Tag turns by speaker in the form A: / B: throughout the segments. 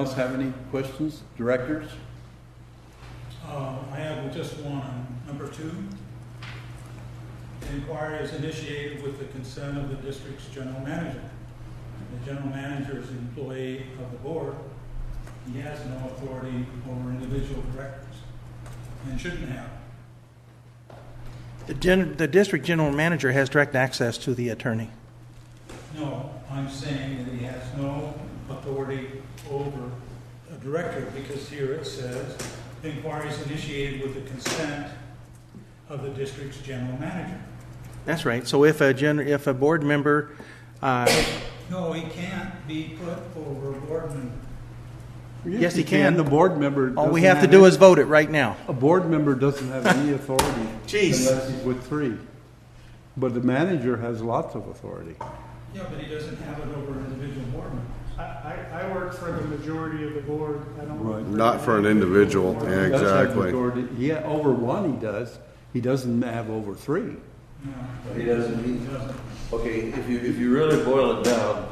A: else have any questions? Directors?
B: Uh, I have just one on number two. The Inquiry is initiated with the consent of the district's general manager. The general manager is an employee of the board. He has no authority over individual directors and shouldn't have.
C: The, gen- the district general manager has direct access to the attorney.
B: No, I'm saying that he has no authority over a director because here it says, "The inquiry is initiated with the consent of the district's general manager."
C: That's right. So if a gen- if a board member, uh,
B: No, he can't be put over a board member.
C: Yes, he can.
A: The board member.
C: all we
A: doesn't
C: have to do
A: any-
C: is vote it right now.
A: A board member doesn't have any authority.
C: Jeez.
A: Unless he's with three. But the manager has lots of authority.
B: Yeah, but he doesn't have it over an individual board member.
D: I, I, I work for the majority of the board, I don't.
A: Right.
D: work
E: Not for an individual,
D: board.
E: yeah.
A: He does have
E: Exactly.
A: authority. Yeah, over one he does. He doesn't have over three.
B: No,
F: He doesn't,
B: he
F: he,
B: doesn't.
F: okay, if you, if you really boil it down,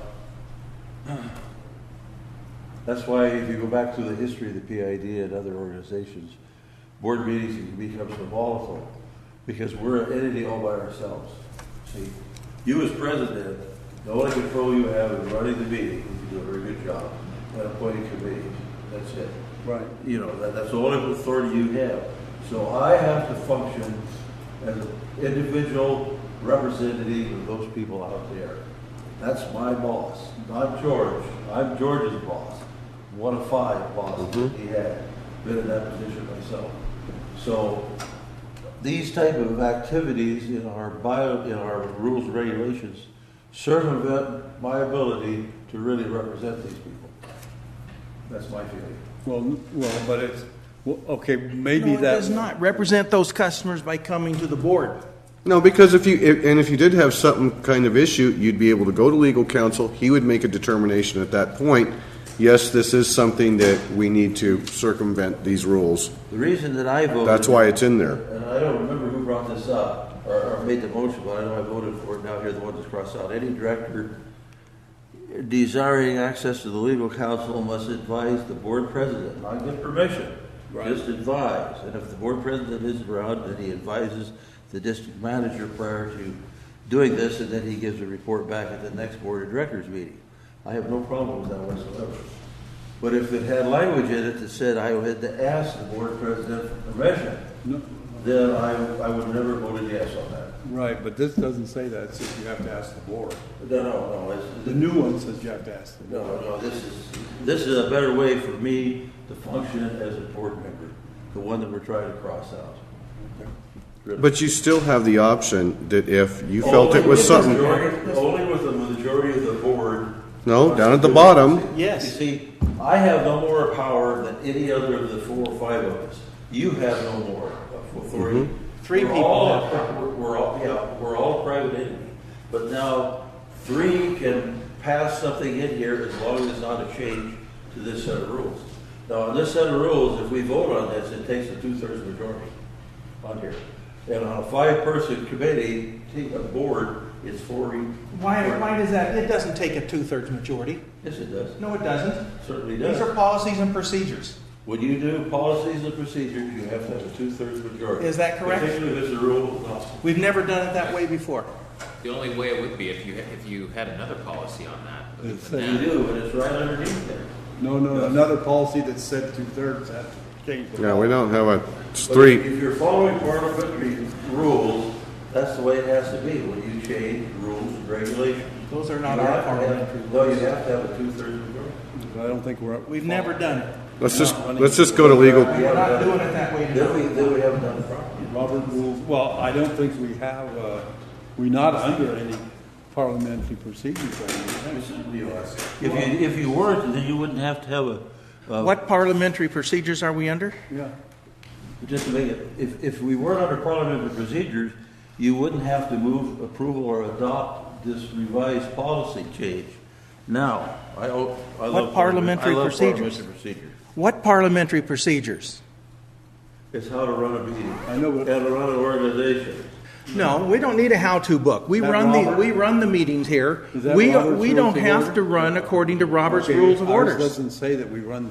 F: that's why if you go back to the history of the PID and other organizations, board meetings become so volatile, because we're an entity all by ourselves. See, you as president, the only control you have is running the meeting, if you do a very good job, and appointing committees, that's it.
A: Right.
F: You know, that, that's the only authority you have. So I have to function as an individual representative of those people out there. That's my boss, not George. I'm George's boss, one of five bosses he had. Been in that position myself. So these type of activities in our bio, in our rules and regulations circumvent my ability to really represent these people. That's my feeling.
A: Well, n- well, but it's, well, okay, maybe
C: no, it
A: that.
C: does not represent those customers by coming to the board.
E: No, because if you, if- and if you did have some kind of issue, you'd be able to go to legal counsel, he would make a determination at that point, yes, this is something that we need to circumvent these rules.
F: The reason that I voted.
E: That's why it's in there.
F: And I don't remember who brought this up or, or made the motion, but I know I voted for it now here, the one that's crossed out. Any director desiring access to the legal counsel must advise the board president, not get permission. Just advise. And if the board president isn't around, then he advises the district manager prior to doing this, and then he gives a report back at the next board of directors meeting. I have no problem with that whatsoever. But if it had language in it that said I had to ask the board president for permission,
A: No,
F: then I, I would never voted yes on that.
A: Right, but this doesn't say that, it says you have to ask the board.
F: No, no, no, it's-
A: The new one says you have to ask the board.
F: no, no, this is, this is a better way for me to function as a board member, the one that we're trying to cross out.
E: But you still have the option that if you
F: Oh,
E: felt it was
F: Only
E: something,
F: with the majority- Only with the majority of the board.
E: no, down at the bottom,
C: Yes.
F: You see, I have no more power than any other of the four or five of us. You have no more authority.
E: Mm-hmm.
C: Three
F: We're
C: people
F: all- We're all, yeah, we're all private entity. But now, three can pass something in here as long as it's not a change to this set of rules. Now, on this set of rules, if we vote on this, it takes a two-thirds majority on here. And on a five-person committee, take a board, it's four. e-
C: Why, why does that? It doesn't take a two-thirds majority.
F: Yes, it does.
C: No, it doesn't.
F: Certainly does.
C: These are policies and procedures.
F: When you do policies and procedures, you have to have a two-thirds majority.
C: Is that correct?
F: Particularly if it's a rule of law.
C: We've never done it that way before.
G: The only way it would be if you, if you had another policy on that. other
A: It's
G: than
A: a-
F: You
G: that.
F: do, and it's right underneath there.
A: No, no, another policy that said two-thirds, that changed the
E: yeah, we don't have a, it's
F: But
E: three,
F: If you're following parliamentary rules, that's the way it has to be when you change rules and regulations.
C: Those are not
F: You
C: our
F: have to have-
C: parliamentary
F: No, you have to have a two-thirds majority.
A: I don't think we're,
C: We've never done it.
E: let's just, let's just go to legal,
C: We're not doing it that way
F: Then
C: today.
F: we, then we have another problem.
A: Robert rules, well, I don't think we have, uh, we're not under any parliamentary procedures right now.
F: If you, if you weren't, then you wouldn't have to have a, uh,
C: What parliamentary procedures are we under?
A: Yeah,
F: Just to make it, if, if we weren't under parliamentary procedures, you wouldn't have to move approval or adopt this revised policy change. Now, I, o- I love.
C: What parliamentary
F: I love
C: procedures?
F: parliamentary procedures.
C: What parliamentary procedures?
F: It's how to run a meeting,
A: I know,
F: how
A: but
F: to run an organization.
C: No, we don't need a how-to book. We
A: That
C: run the,
A: Robert-
C: we run the meetings here.
A: Is that
C: We,
A: Robert's
C: we
A: Rules
C: don't
A: of
C: have
A: Order?
C: to run according to Robert's
A: Okay,
C: Rules of
A: ours
C: Orders.
A: Doesn't say that we run